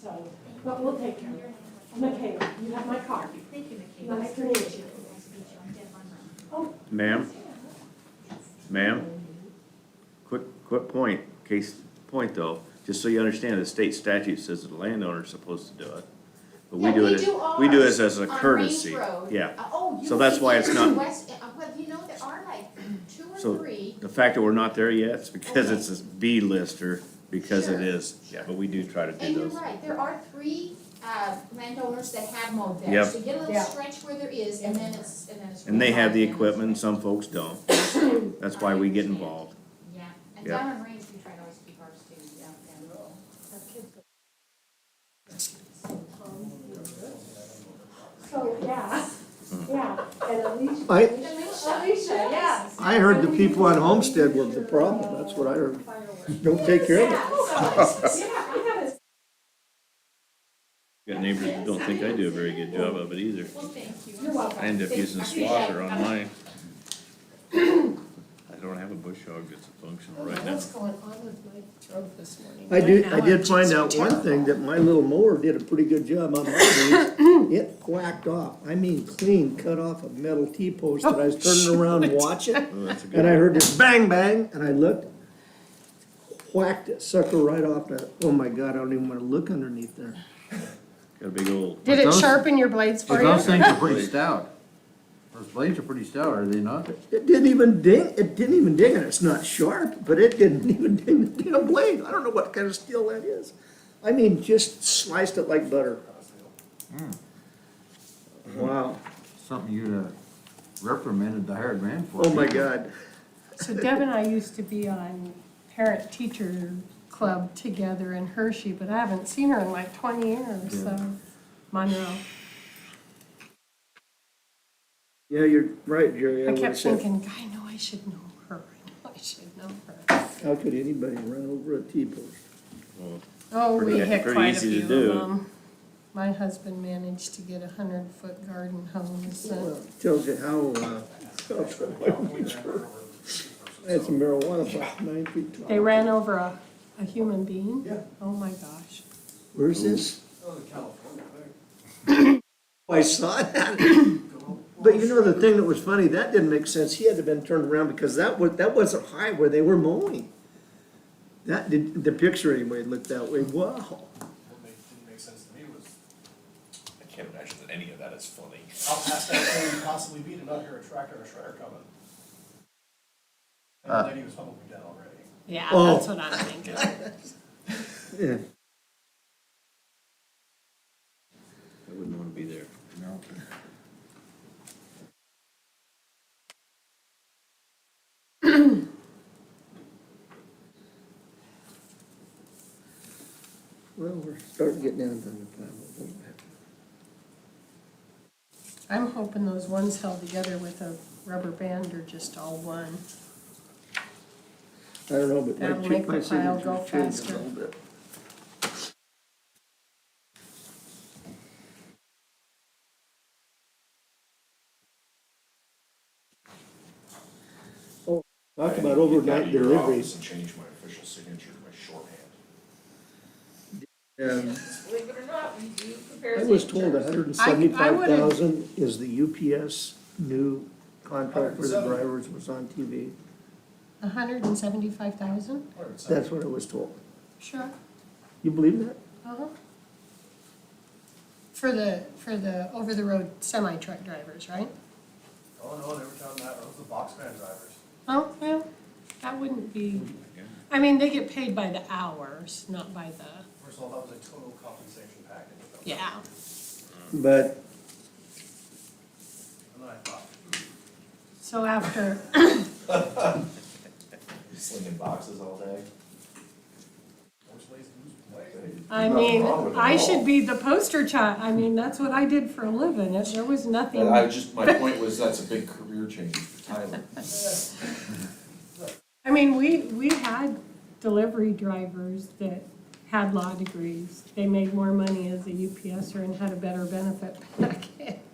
So, but we'll take care of it. Michaela, you have my card. Thank you, Michaela. Nice to meet you. Nice to meet you. I'm Deb Munro. Ma'am? Ma'am? Quick, quick point, case point though, just so you understand, the state statute says that the landowner's supposed to do it. But we Yeah, do we it, do as- we do ours it as a on Range courtesy. Road. Yeah, Uh, Oh, you. So that's why it's not- West- uh, Well, you know, there are like two So- or three, the fact that we're not there yet is because Okay. it's a B lister, because it Sure. is, yeah, but we do try to do and you're those. right, there are three, uh, landowners that have mowed there. Yep. So you get a little Yeah. stretch where there is, and then it's, and then it's. And they have the really hard. equipment, and some folks don't, that's why we get involved. Yeah, and Yep. down on range, we try to always keep ours too, yeah, yeah. So, yeah, yeah, and Alicia. I, Alicia, yeah. I heard the people on Homestead was the problem, that's what I heard. Don't take care of it. Yeah, so, yeah, I haven't Got neighbors that don't think I do a very good job of it either. Well, thank you. You're welcome. I end up using a swasher on mine. I don't have a bush hog that's functional right now. What's going on with my throat this morning? I did, I Right now, did it's find just out one terrible. thing, that my little mower did a pretty good job on my weeds. It whacked off, I mean clean, cut off a metal T-post that I was turning around watching. Oh, that's a good And I one. heard this bang, bang, and I looked, whacked it sucker right off that, oh my God, I don't even wanna look underneath there. Got a big old. Did it Those- sharpen your blades But for those you? things are pretty stout. Those blades are pretty stout, are they not? It didn't even ding, it didn't even ding, and it's not sharp, but it didn't even ding the damn blade. I don't know what kind of steel that is. I mean, just sliced it like butter. Wow, Something you'd have reprimanded the hired man for. oh my God. So Deb and I used to be on parent-teacher club together in Hershey, but I haven't seen her in like twenty years, so Monroe. Yeah, you're right, Jerry. I would've kept said, thinking, I know I should know her, I know I should know her. How could anybody run over a T-post? Oh, we Pretty- e-, hit pretty quite a easy to few of do. them. My husband managed to get a hundred-foot garden hose, and Well, Tells you how, uh, how trouble we were. I had some marijuana about nine feet tall. They ran over a, a human being? Yeah. Oh my gosh. Where's this? Oh, California. I saw that. But you know, the thing that was funny, that didn't make sense. He had to have been turned around because that was, that wasn't high where they were mowing. That did, the picture anyway looked that way. Wow. What made, didn't make sense to me was I can't imagine that any of that is funny. how fast that thing could possibly be to not hear a tractor or a shredder coming. And then he was probably dead already. Yeah, Oh. that's what I'm thinking. Yeah. I wouldn't wanna be there. No. Well, we're starting to get down to the uh, time a little bit. I'm hoping those ones held together with a rubber band are just all one. I don't know, but That'll my, make chi- the my pile go signature's changed a faster. little bit. Oh, Talk about overnight deliveries. And change my official signature to my shorthand. Um, Believe it or not, we do prepare. I was told signatures. hundred and I- I seventy-five would've- thousand is the UPS new contract for the drivers was on TV. A hundred and seventy-five thousand? That's what I was told. Sure. You believe that? Uh-huh. For the, for the over-the-road semi-truck drivers, right? Oh, no, they were counting that, those are the box van drivers. Oh, well, that wouldn't be, I mean, they get paid by the hours, not by the, First of all, that was a total compensation package. yeah. But And then I thought, So after, Slinging boxes all day. which lays who's play? I mean, I should be the poster child, I mean, that's what I did for a living, If there was nothing. I just, my point was, that's a big career change for Tyler. I mean, we, we had delivery drivers that er had law degrees. They made more money as a UPSer and had a better benefit package.